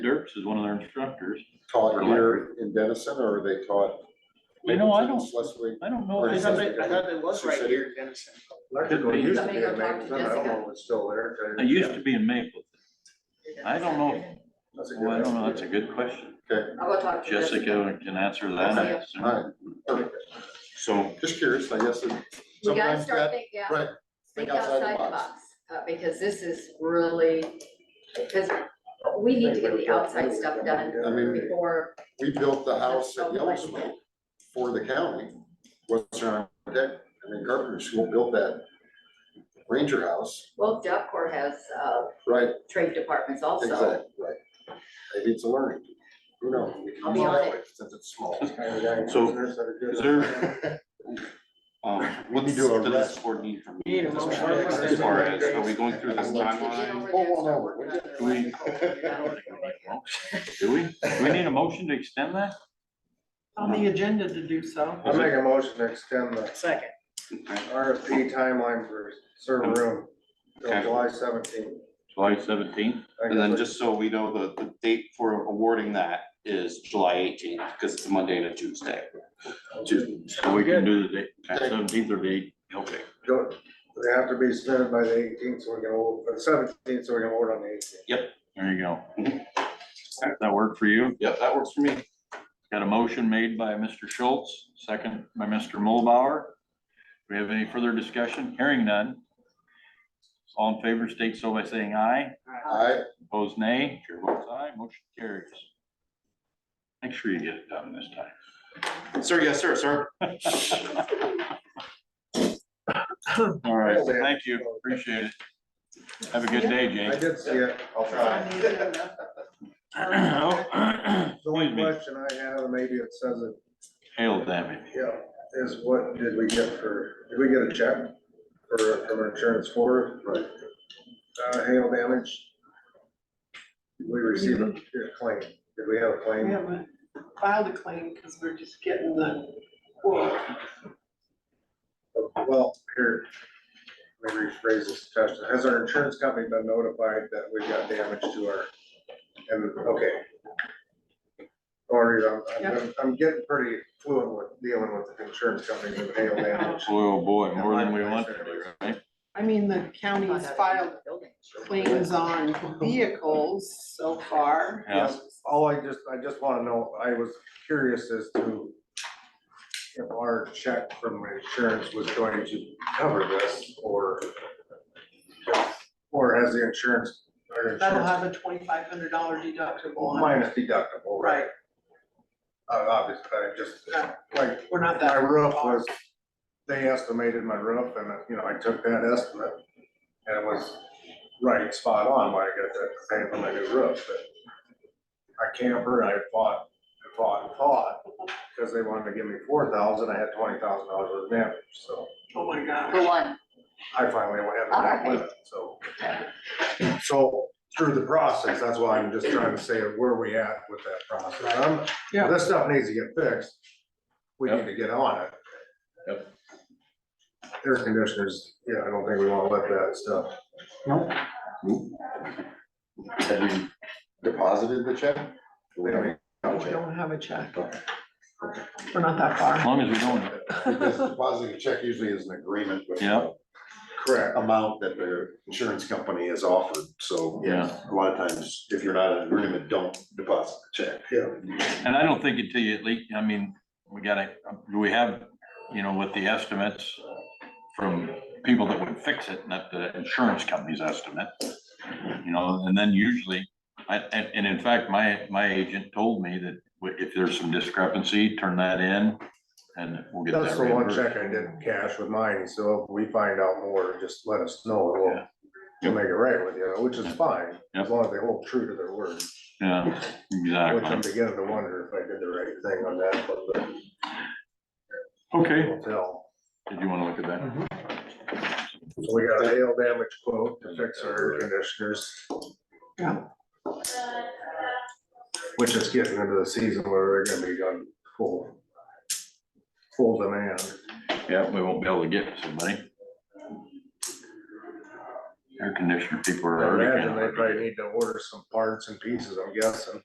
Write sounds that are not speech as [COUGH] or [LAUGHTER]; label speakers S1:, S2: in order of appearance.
S1: Dirks is one of their instructors.
S2: taught here in Denison, or are they taught?
S1: You know, I
S2: Mapleton,
S1: don't-
S2: Schleswig?
S1: I don't
S2: Or
S1: know.
S3: I
S1: if
S2: is
S3: thought
S1: it's-
S2: that-
S3: they, I thought it was right here in Denison.
S4: Electrical
S1: Could be.
S4: used to be
S5: Somebody
S4: in
S5: go talk to
S4: Mapleton, I don't know if it's still there.
S1: It used to be in Mapleton. I don't know. if-
S2: That's a good
S1: Well, I don't know. That's a
S2: answer.
S1: good question.
S5: I'll go talk to
S1: Jessica can answer that. I assume.
S2: All right, perfect.
S1: So,
S2: Just curious, I guess. it-
S5: We gotta
S2: sometimes
S5: start
S2: that-
S5: thinking, yeah.
S2: Right,
S5: think outside the box, uh, because this is really, because we need to get the outside stuff done
S2: I mean,
S5: before,
S2: we built the house at Yellowstone for the county, Western Architect, and then Carpenter School built that Ranger House,
S5: well, Job Corps has, uh,
S2: right,
S5: trade departments also.
S2: exactly, right. Maybe it's a learning, who knows? We can
S5: I'll
S2: use
S5: be
S2: it
S5: on
S2: that
S5: it.
S2: way, Since it's small.
S1: So,
S4: is
S1: is there, um, what's
S2: We do a
S1: the
S2: rest.
S1: next board need from me?
S3: Need a
S1: at this
S3: motion.
S1: point? As far as, are we going through this
S5: Just need to get
S1: timeline?
S5: over
S2: Oh,
S5: that
S2: well, no,
S5: stuff.
S2: we-
S5: Not their
S1: we-
S5: life, hopefully,
S1: I don't
S5: not.
S1: think we need a motion. Do we? Do we need a motion to extend that?
S6: on the agenda to do so.
S4: I'll make a motion to extend the
S3: Second.
S4: RFP timeline for server room
S1: Okay.
S4: till July seventeenth.
S1: July seventeenth?
S7: And then just so we know, the, the date for awarding that is July eighteenth, because it's a Monday and a Tuesday.
S1: So we can do the date, seventeenth or the eight, okay.
S4: Don't, they have to be submitted by the eighteenth, so we can, vote- uh, seventeenth, so we can vote on the eighteenth.
S1: There you go. Does that work for you?
S7: Yep, that works for me.
S1: Got a motion made by Mr. Schultz, second by Mr. Mulbauer. Do we have any further discussion? Hearing none. All in favor state so by saying aye.
S2: I,
S1: Opposed, nay. Chair votes aye. Motion carries. Make sure you get it done this time.
S7: Sir, yes, sir, sir.
S1: All right, thank you. Appreciate it. Have a good day,
S4: I
S1: Jake.
S4: did see it.
S7: I'll try.
S4: The only
S1: Excuse me.
S4: question I have, and maybe it says it,
S1: [CLEARS THROAT] Hail damage.
S4: yeah, is what did we get for, did we get a check for, from insurance for,
S2: right,
S4: uh, hail damage? Did we receive a a claim? Did we have a
S6: We
S4: claim?
S6: haven't filed a claim because we're just getting the quote.
S4: Well, here, let me rephrase this question. Has our insurance company been notified that we've got damage to our, and, okay. Or, I'm, I'm, I'm getting pretty fluent with dealing with the insurance company with hail damage.
S1: Oh, boy, more than we want to do, right?
S6: I mean, the county's filed
S5: Building.
S6: claims on vehicles so far.
S1: Yeah.
S4: All I just, I just wanna know, I was curious as to if our check from insurance was going to cover this, or or has the insurance, our
S6: That'll
S4: insurance
S6: have a twenty-five hundred dollar deductible on it.
S4: minus deductible, right?
S6: Right,
S4: Uh, obviously, I just, like,
S6: we're not
S4: my
S6: that,
S4: roof was, they estimated my roof and, you know, I took that estimate. And it was right, spot on, when I got that, pay for my new roof, but. I camper, I fought, and fought, and fought, because they wanted to give me four thousand, I had twenty thousand dollars worth of damage, so.
S6: oh my gosh.
S5: For one,
S4: I finally went ahead and back with it, so. So through the process, that's why I'm just trying to say where we at with that process. Um,
S6: Yeah.
S4: This stuff needs to get fixed. We need to get on it.
S1: Yep.
S4: Air conditioners, yeah, I don't think we wanna let that stuff.
S2: have you deposited the check?
S4: They don't even-
S6: We don't have a check. We're not that
S1: As
S6: far.
S1: long as we don't,
S2: Because depositing a check usually is an agreement with.
S1: Yeah.
S4: Correct.
S2: amount that their insurance company has offered, so.
S1: Yeah.
S2: A lot of times, if you're not in agreement, don't deposit the check.
S1: And I don't think until you at least, I mean, we gotta, do we have, you know, with the estimates from people that would fix it, not the insurance company's estimate. You know, and then usually, I, and, and in fact, my, my agent told me that if there's some discrepancy, turn that in and we'll get
S4: That's
S1: that
S4: the one
S1: reimbursed.
S4: check I didn't cash with mine, so if we find out more, just let us know, and we'll, we'll make it right with you, which is fine,
S1: Yep.
S4: as long as they hold true to their word.
S1: Yeah,
S4: Which I'm
S1: exactly.
S4: beginning to wonder if I did the right thing on that, one, but
S1: Okay,
S4: we'll tell.
S1: did you wanna look at that?
S4: Mm-hmm. So we got a hail damage quote to fix our air conditioners.
S6: Yeah.
S4: Which is getting into the season where they're gonna be on full, full demand.
S1: Yeah, we won't be able to get somebody. air conditioner people
S4: I
S1: are already.
S4: imagine they
S1: kind of-
S4: probably need to order some parts and pieces, I'm guessing.